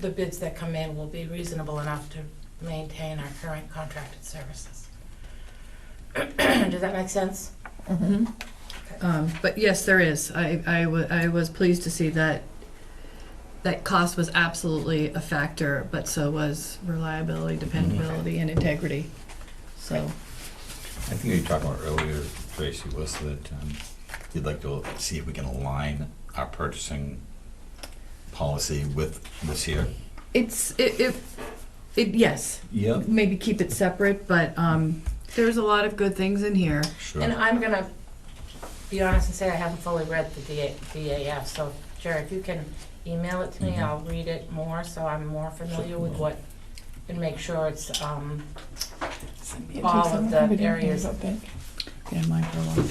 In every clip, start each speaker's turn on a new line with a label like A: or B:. A: the bids that come in will be reasonable enough to maintain our current contracted services. Does that make sense?
B: Mhm. Um, But yes, there is. I, I wa- I was pleased to see that, that cost was absolutely a factor, but so was reliability, dependability, and integrity. So,
C: I think you were talking about earlier, Tracy, was that um, you'd like to see if we can align our purchasing policy with this year.
B: it's, it, it, it, yes,
C: Yep.
B: maybe keep it separate, but um, there's a lot of good things in here.
A: And um,
C: Sure.
A: I'm gonna be honest and say I haven't fully read the DA DAF, so Jerry, if you can email it to me,
C: Mhm.
A: I'll read it more, so I'm more familiar with what, and make sure it's, um, all of the areas of
B: Yeah, mine for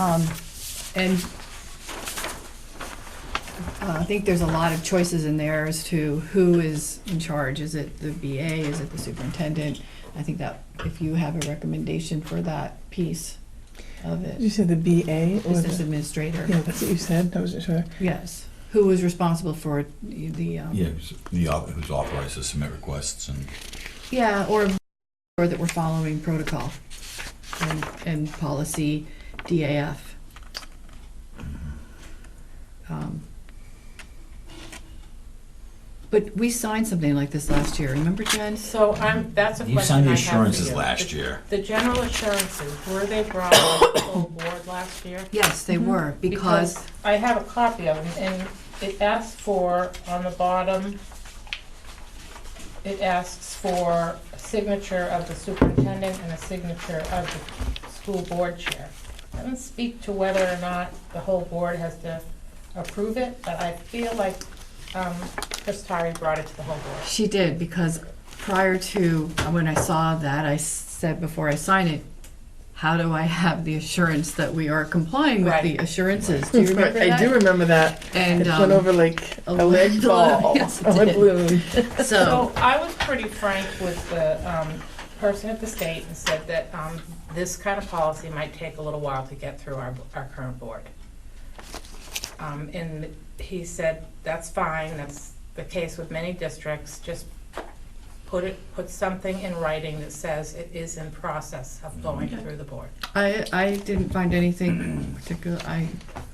B: a while. Um, and uh, I think there's a lot of choices in there as to who is in charge. Is it the BA? Is it the superintendent? I think that if you have a recommendation for that piece of
D: Did you
B: it,
D: say the BA or
B: business
D: the,
B: administrator,
D: yeah, that's what you said. I wasn't sure.
B: yes, who was responsible for the um,
C: Yeah, who's- the, au- who's authorized to submit requests and,
B: Yeah, or, or that we're following protocol and, and policy DAF. Um, But we signed something like this last year, remember Jen?
A: So I'm, that's a question I
C: you
A: have
C: signed the
A: for
C: assurances
A: you.
C: last year.
A: The general assurances, were they brought on the full board last year?
B: Yes, they were, because,
A: I have a copy of them, and it asks for, on the bottom, it asks for a signature of the superintendent and a signature of the school board chair. Doesn't speak to whether or not the whole board has to approve it, but I feel like, um, Chris Tari brought it to the whole board.
B: she did, because prior to, when I saw that, I said before I sign it, how do I have the assurance that we are complying with the
A: Right.
B: assurances? Do you remember
D: I
B: that?
D: do remember that.
B: And,
D: it
B: um,
D: went over like
B: a
D: a lead
B: lead
D: ball,
B: balloon. Yes, it
D: a lead
B: did.
D: balloon.
B: So,
A: So I was pretty frank with the um, person at the state and said that um, this kind of policy might take a little while to get through our, our current board. Um, And he said, that's fine, that's the case with many districts, just put it, put something in writing that says it is in process of going through the board.
B: I, I didn't find anything particular, I,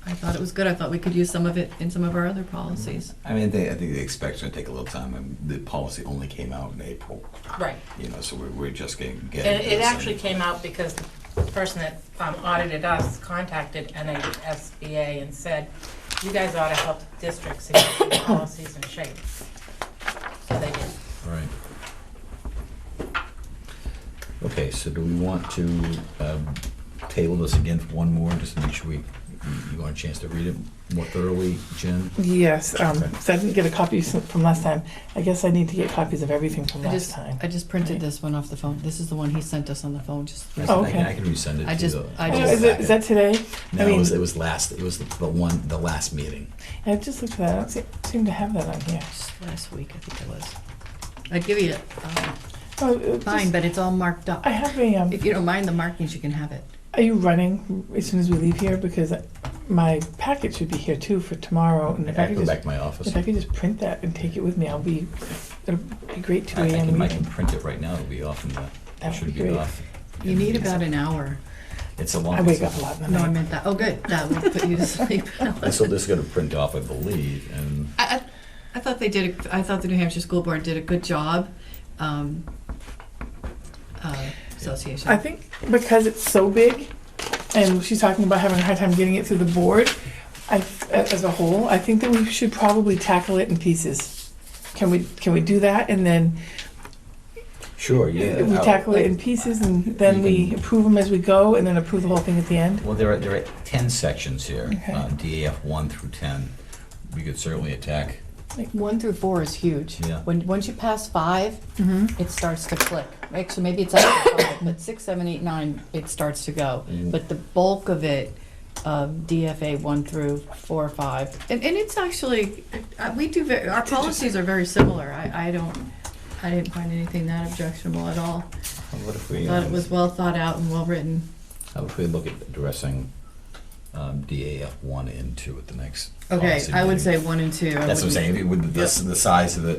B: I thought it was good, I thought we could use some of it in some of our other policies.
C: I mean, they, I think they expect it's gonna take a little time, and the policy only came out in April,
A: Right.
C: you know, so we're, we're just getting, getting.
A: And
C: this
A: it
C: and-
A: actually came out because the person that um, audited us contacted NHSBA and said, you guys ought to help districts to get their policies in shape. So they did.
C: Right. Okay, so do we want to um, table this again for one more, just to make sure we, you want a chance to read it more thoroughly, Jen?
D: Yes. Um, so I didn't get a copy s- from last time. I guess I need to get copies of everything from
B: I
D: last
B: just,
D: time.
B: I just printed this one off the phone, this is the one he sent us on the phone, just.
C: I
D: Oh,
C: can- I
D: okay.
C: can resend it
B: I
C: to
B: just-
C: the-
B: I
D: Oh,
C: the
B: just-
D: is, it, is that
C: packet.
D: today?
C: No,
D: I mean,
C: it was, it was last, it was the the one, the last meeting.
D: I just looked at that. I don't se- seem to have that on here.
B: Just Last week, I think it was. I'd give you, um,
D: Oh, it was
B: mine,
D: just-
B: but it's all marked up.
D: I have a. Um,
B: If you don't mind the markings, you can have it.
D: are you running as soon as we leave here? Because my packet should be here too for tomorrow. And
C: I
D: if I
C: can
D: could
C: go
D: just
C: back to my office.
D: If I could just print that and take it with me, I'll be, it'll be great two
C: I I
D: AM
C: can, I can
D: meeting.
C: print it right now, it'll be off in the,
D: That
C: it
D: would
C: should
D: be
C: be
D: great.
C: off.
B: You need about an hour.
C: It's a long.
D: I wake up a lot in the
B: No, I
D: night.
B: meant that, oh, good, that would put you to sleep.
C: And so this is gonna print off, I believe, and
B: I, I, I thought they did. A, I thought the New Hampshire School Board did a good job. Um, uh, association.
D: I think because it's so big, and she's talking about having a hard time getting it through the board, I, as a whole, I think that we should probably tackle it in pieces. Can we, can we do that? And then
C: sure, yeah.
D: we
C: I'll-
D: tackle it in pieces and then we approve them as we go and then approve the whole thing at the end?
C: Well, there are, there are 10 sections here,
D: Okay.
C: uh, DAF 1 through 10. We could certainly attack,
B: one through four is huge.
C: Yeah.
B: When once you pass five,
D: Mm-hmm.
B: it starts to click. Actually, maybe it's after five, but six, seven, eight, nine, it starts to go.
C: Mm.
B: But the bulk of it, um, of DFA one through four, five, and, and it's actually uh, we do very, our policies are very similar. I, I don't. I didn't find anything that objectionable at all.
C: what if we,
B: Thought
C: um,
B: it was well thought out and well written.
C: how if we look at addressing um, DAF 1 and 2 at the next
B: Okay,
C: policy
B: I would
C: meeting?
B: say one and two. I
C: That's what I'm
B: wouldn't-
C: saying, It would- that's the size of it.